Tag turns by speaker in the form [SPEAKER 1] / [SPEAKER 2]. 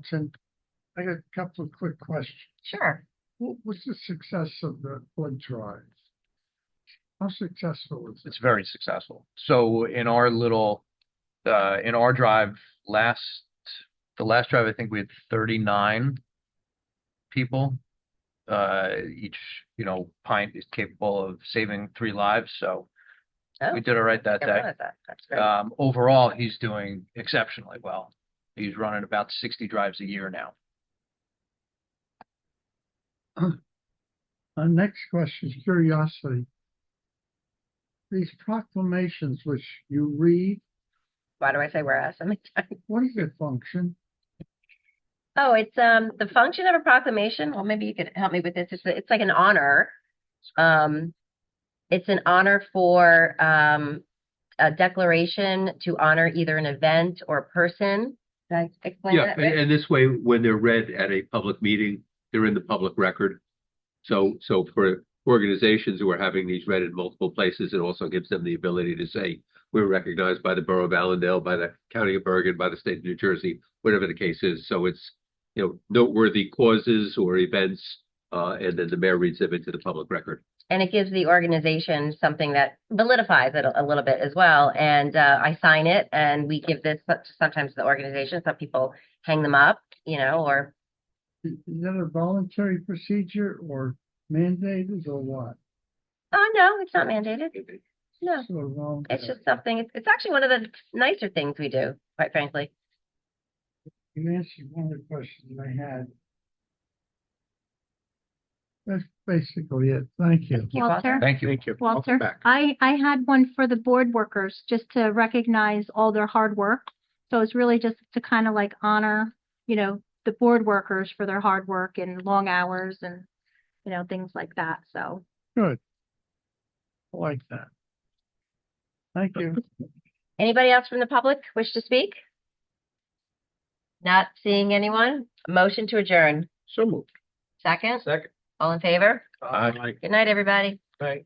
[SPEAKER 1] Jackson, I got a couple of quick questions.
[SPEAKER 2] Sure.
[SPEAKER 1] What was the success of the blood drive? How successful was it?
[SPEAKER 3] It's very successful. So in our little, uh, in our drive last, the last drive, I think we had thirty-nine people. Uh, each, you know, pint is capable of saving three lives, so
[SPEAKER 2] Oh,
[SPEAKER 3] we did all right that
[SPEAKER 2] I
[SPEAKER 3] day.
[SPEAKER 2] wanted that. That's great.
[SPEAKER 4] Uh,
[SPEAKER 3] Um, overall, he's doing exceptionally well. He's running about sixty drives a year now.
[SPEAKER 1] Our next question is curiosity. These proclamations which you read,
[SPEAKER 2] Why do I say whereas so many times?
[SPEAKER 1] what is their function?
[SPEAKER 2] Oh, it's um the function of a proclamation. Well, maybe you could help me with this. It's it's like an honor. Um, it's an honor for um a declaration to honor either an event or a person. Did I explain
[SPEAKER 4] Yeah,
[SPEAKER 2] that?
[SPEAKER 4] and,
[SPEAKER 2] right?
[SPEAKER 4] and this way, when they're read at a public meeting, they're in the public record. So, so for organizations who are having these read in multiple places, it also gives them the ability to say, we're recognized by the Borough of Allendale, by the County of Bergen, by the state of New Jersey, whatever the case is. So it's, you know, noteworthy causes or events, uh, and then the mayor reads them into the public record.
[SPEAKER 2] And it gives the organization something that validifies it a a little bit as well. And uh, I sign it, and we give this sometimes to the organization. Some people hang them up, you know, or
[SPEAKER 1] Is is that a voluntary procedure or mandated or what?
[SPEAKER 2] Oh, no, it's not mandated.
[SPEAKER 5] Mm-hmm.
[SPEAKER 2] No,
[SPEAKER 1] Sort of
[SPEAKER 2] it's
[SPEAKER 1] voluntary.
[SPEAKER 2] just something, it's, it's actually one of the nicer things we do, quite frankly.
[SPEAKER 1] You answered one of the questions I had. That's basically it. Thank you.
[SPEAKER 2] you, Walter.
[SPEAKER 6] Walter,
[SPEAKER 3] Thank you.
[SPEAKER 5] Thank you.
[SPEAKER 6] Walter,
[SPEAKER 5] Back.
[SPEAKER 6] I, I had one for the board workers, just to recognize all their hard work. So it's really just to kind of like honor, you know, the board workers for their hard work and long hours and, you know, things like that. So
[SPEAKER 1] Good. I like that. Thank you.
[SPEAKER 2] Anybody else from the public wish to speak? Not seeing anyone? Motion to adjourn.
[SPEAKER 5] So moved.
[SPEAKER 2] Second?
[SPEAKER 5] Second.
[SPEAKER 2] All in favor?
[SPEAKER 5] Aye.
[SPEAKER 2] Good night, everybody.
[SPEAKER 5] Aye.